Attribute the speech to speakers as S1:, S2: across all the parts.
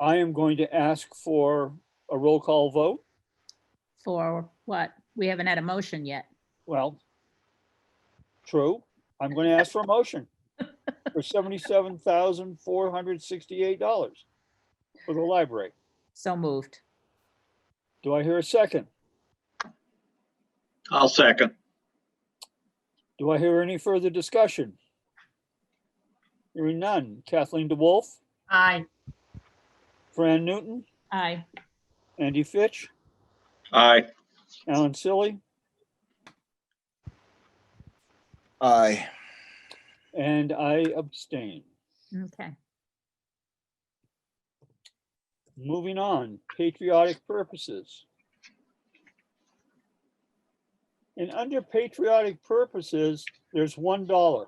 S1: I am going to ask for a roll call vote.
S2: For what? We haven't had a motion yet.
S1: Well, true. I'm going to ask for a motion for seventy-seven thousand, four hundred sixty-eight dollars for the library.
S2: So moved.
S1: Do I hear a second?
S3: I'll second.
S1: Do I hear any further discussion? Hearing none. Kathleen DeWolf,
S2: Aye.
S1: Fran Newton,
S2: Aye.
S1: Andy Fitch,
S3: Aye.
S1: Alan Silly,
S4: Aye.
S1: and I abstain.
S2: Okay.
S1: Moving on, patriotic purposes. And under patriotic purposes, there's one dollar.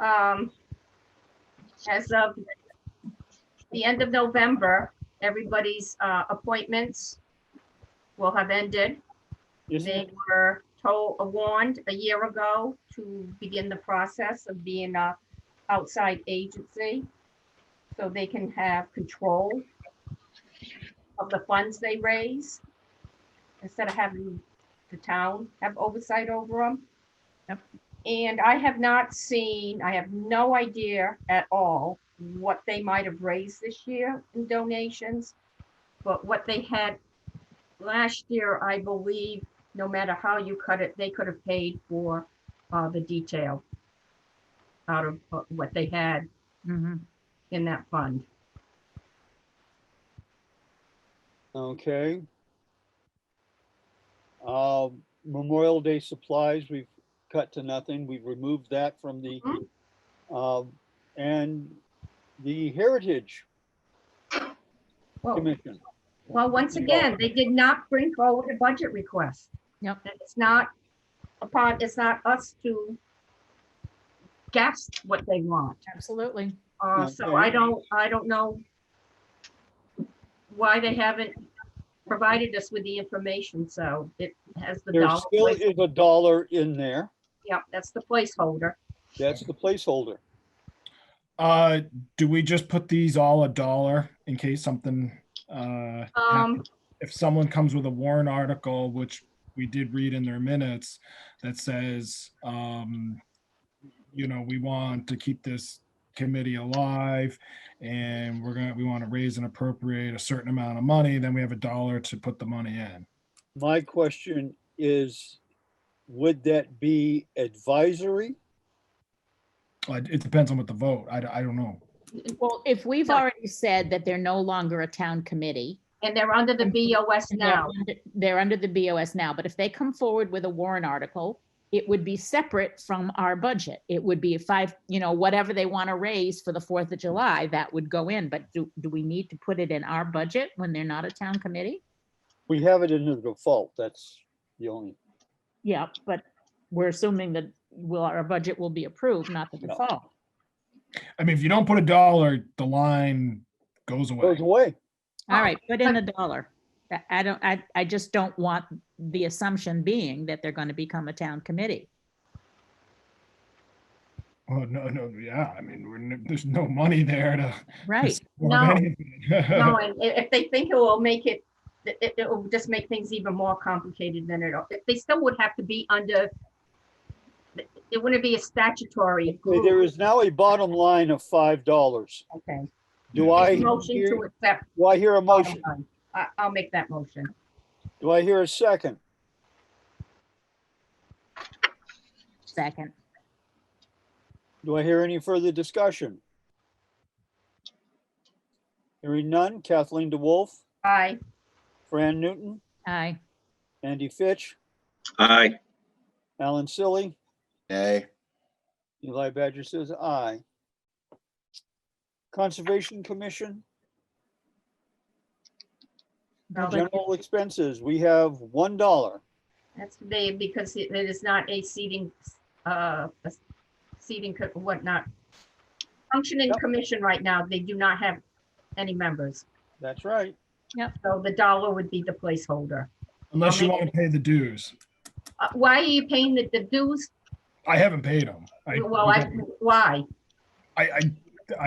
S5: um, as of the end of November, everybody's, uh, appointments will have ended.
S1: Isn't
S5: They
S1: it?
S5: were told, warned a year ago to begin the process of being a outside agency. So they can have control of the funds they raise. Instead of having the town have oversight over them.
S2: Yep.
S5: And I have not seen, I have no idea at all what they might have raised this year in donations. But what they had last year, I believe, no matter how you cut it, they could have paid for uh, the detail out of uh, what they had
S2: Mhm.
S5: in that fund.
S1: Okay. Um, Memorial Day supplies, we've cut to nothing. We've removed that from the,
S5: Mhm.
S1: um, and the Heritage
S5: Well,
S1: Commission.
S5: well, once again, they did not bring forward a budget request.
S2: Yep.
S5: And It's not upon, it's not us to guess what they want.
S2: Absolutely.
S5: Uh, so I don't, I don't know why they haven't provided us with the information, so it has the
S1: There
S5: dollar.
S1: still is a dollar in there.
S5: Yep, that's the placeholder.
S1: That's the placeholder.
S6: Uh, do we just put these all a dollar in case something, uh,
S5: Um,
S6: happens? if someone comes with a warrant article, which we did read in their minutes, that says, um, you know, we want to keep this committee alive and we're gonna, we want to raise and appropriate a certain amount of money, then we have a dollar to put the money in.
S1: My question is, would that be advisory?
S6: Uh, it depends on what the vote, I, I don't know.
S2: Well, if we've
S5: No.
S2: already said that they're no longer a town committee.
S5: and they're under the BOS
S2: and they're
S5: now.
S2: under- They're under the BOS now, but if they come forward with a warrant article, it would be separate from our budget. It would be five, you know, whatever they want to raise for the Fourth of July, that would go in. But do, do we need to put it in our budget when they're not a town committee?
S1: We have it in the default. That's the only,
S2: Yeah, but we're assuming that will, our budget will be approved, not the
S1: No.
S2: default.
S6: I mean, if you don't put a dollar, the line goes away.
S1: goes away.
S2: All
S5: Oh,
S2: right, put in
S5: I-
S2: a dollar. I- I don't, I, I just don't want the assumption being that they're going to become a town committee.
S6: Oh, no, no, yeah, I mean, we're, n- there's no money there to.
S2: Right,
S6: support
S5: No.
S6: anything.
S5: No, and i- if they think it will make it, it, it- it will just make things even more complicated than it, al- they still would have to be under, it wouldn't be a statutory
S1: Okay, There
S5: group.
S1: is now a bottom line of five dollars.
S5: Okay.
S1: Do I,
S5: Motion to
S1: hear-
S5: accept,
S1: do I hear a motion?
S5: I, I'll make that motion.
S1: Do I hear a second?
S2: second.
S1: Do I hear any further discussion? Hearing none. Kathleen DeWolf,
S5: Aye,
S1: Fran Newton,
S2: Aye,
S1: Andy Fitch,
S3: Aye.
S1: Alan Silly,
S4: Nay.
S1: Eli Badger says aye. Conservation Commission,
S2: Nobody-
S1: general expenses, we have one dollar.
S5: that's they, because it it is not a seating, uh, a seating, co- whatnot. Functioning
S1: Yep.
S5: commission right now, they do not have any members,
S1: That's right.
S5: so the dollar would be the placeholder.
S6: Unless you want to pay the dues.
S5: Uh, Why are you paying the the dues
S6: I haven't paid them. I,
S5: Well, I, why?
S6: I, I